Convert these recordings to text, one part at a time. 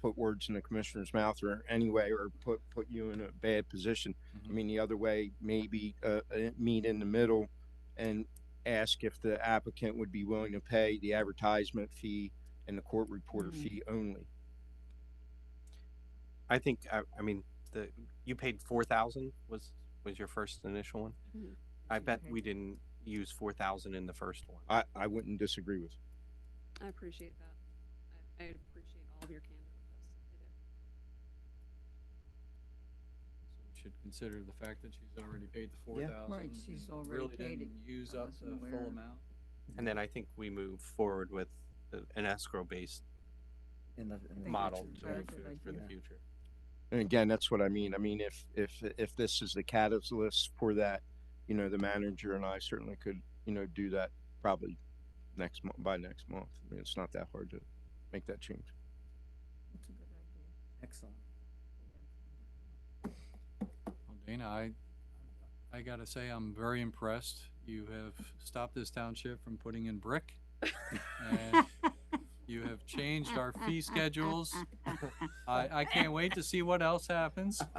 put words in the commissioner's mouth or anyway, or put, put you in a bad position. I Mhm. mean, the other way, maybe, uh, uh, meet in the middle and ask if the applicant would be willing to pay the advertisement fee and the court reporter Mhm. fee only. I think, I, I mean, the, you paid four thousand was, was your first initial one? Mhm. I bet Okay. we didn't use four thousand in the first one. I, I wouldn't disagree with. you. I appreciate that. I, I appreciate all of your candor with us. So we Should consider the fact that she's already paid the four Yeah. thousand. Right, she's already paid it. Really didn't use I up wasn't the aware. full amount. And then I think we move forward with uh, an escrow based In the, in the. model future. to Very move good forward for the idea. future. And again, that's what I mean. I mean, if, if, if this is the catalyst for that, you know, the manager and I certainly could, you know, do that probably next month, by next month. I mean, it's not that hard to make that change. That's a good idea. Excellent. Well, Dana, I, I gotta say, I'm very impressed. You have stopped this township from putting in brick. and You have changed our fee schedules. I, I can't wait to see what else happens.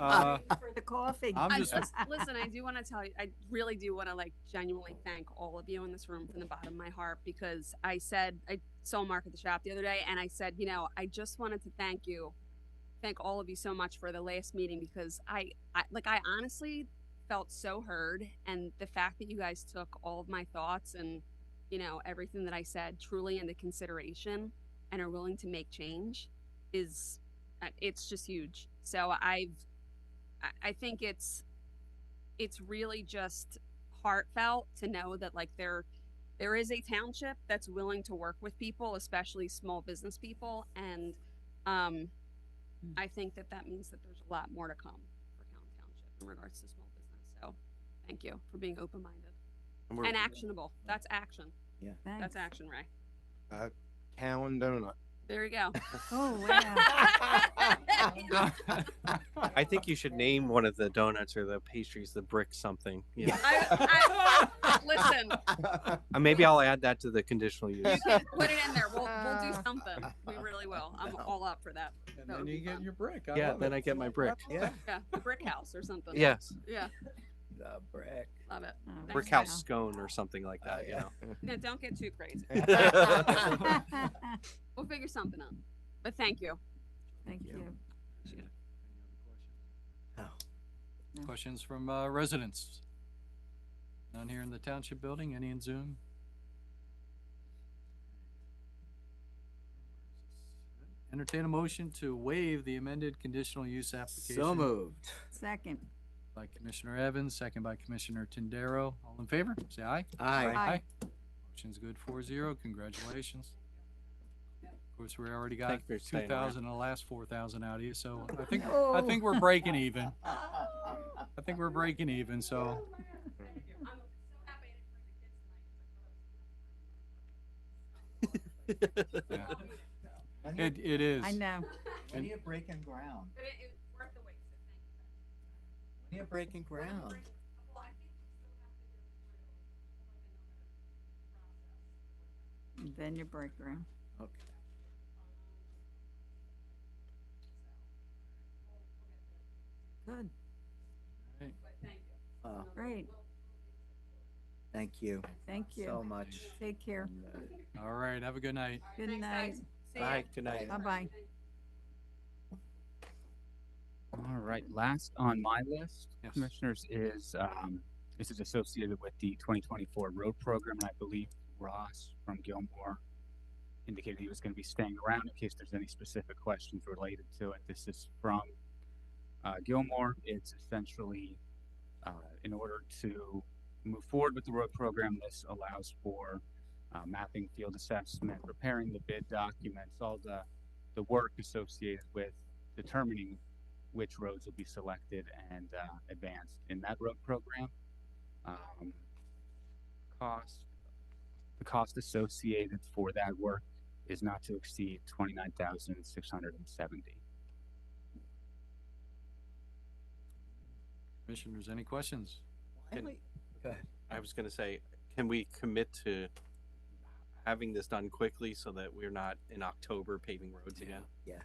Uh, For the coffee. I'm I just- just, listen, I do want to tell you, I really do want to like genuinely thank all of you in this room from the bottom of my heart because I said, I saw Mark at the shop the other day and I said, you know, I just wanted to thank you. Thank all of you so much for the last meeting because I, I like, I honestly felt so heard. And the fact that you guys took all of my thoughts and, you know, everything that I said truly into consideration and are willing to make change is, uh, it's just huge. So I've, I- I think it's it's really just heartfelt to know that like there there is a township that's willing to work with people, especially small business people, and um, Hmm. I think that that means that there's a lot more to come for County Township in regards to small business. So, thank you for being open minded we're- and actionable. That's action. Thanks. That's action, Ray. Town donut. There you go. Oh, wow. I think you should name one of the donuts or the pastries, the brick something. you know. I- Listen, Uh, Maybe I'll add that to the conditional use. put it in there. We'll we'll do something. We really will. I'm all up for that. And That then would you be get fun. your brick. I Yeah, love then it. I get my brick. Yeah, Yeah, the brick house or something. Yes, Yeah, the brick. love it. Oh, Brick brick Wow. house scone or something like that, you yeah. know. No, don't get too crazy. wow. We'll figure something out. But thank you. Thank Yeah. you. Any other Oh. questions? Questions from uh, residents? None here in the township building, any in Zoom? Entertain a motion to waive the amended conditional use application. So moved. Second. By Commissioner Evans, second by Commissioner Tindaro. All in favor, say aye. Aye. Aye. Motion's good, four zero, congratulations. Of course, we already got Thank you for two staying around. thousand, the last four thousand out of you, so I think, Oh, I think we're breaking even. I think we're breaking even, so it, it is. I know. When you're breaking ground, when you're breaking ground. Then your break room. Okay. Good, Oh, great. thank you Thank so you. much. Take care. And, uh, All right, have a good night. Good night. Bye, good night. Bye-bye. All right, last on my list, Yes. commissioners, is, um, this is associated with the twenty twenty-four road program, and I believe Ross from Gilmore indicated he was gonna be staying around in case there's any specific questions related to it. This is from, uh, Gilmore. It's essentially, uh, in order to move forward with the road program, this allows for, uh, mapping field assessment, preparing the bid documents, all the, the work associated with determining which roads will be selected and uh, advanced in that road program. Um, cost, the cost associated for that work is not to exceed twenty-nine thousand six hundred and seventy. Commissioners, any questions? why Good. we- Go ahead. I was gonna say, can we commit to having this done quickly so that we're not in October paving roads again? Yeah,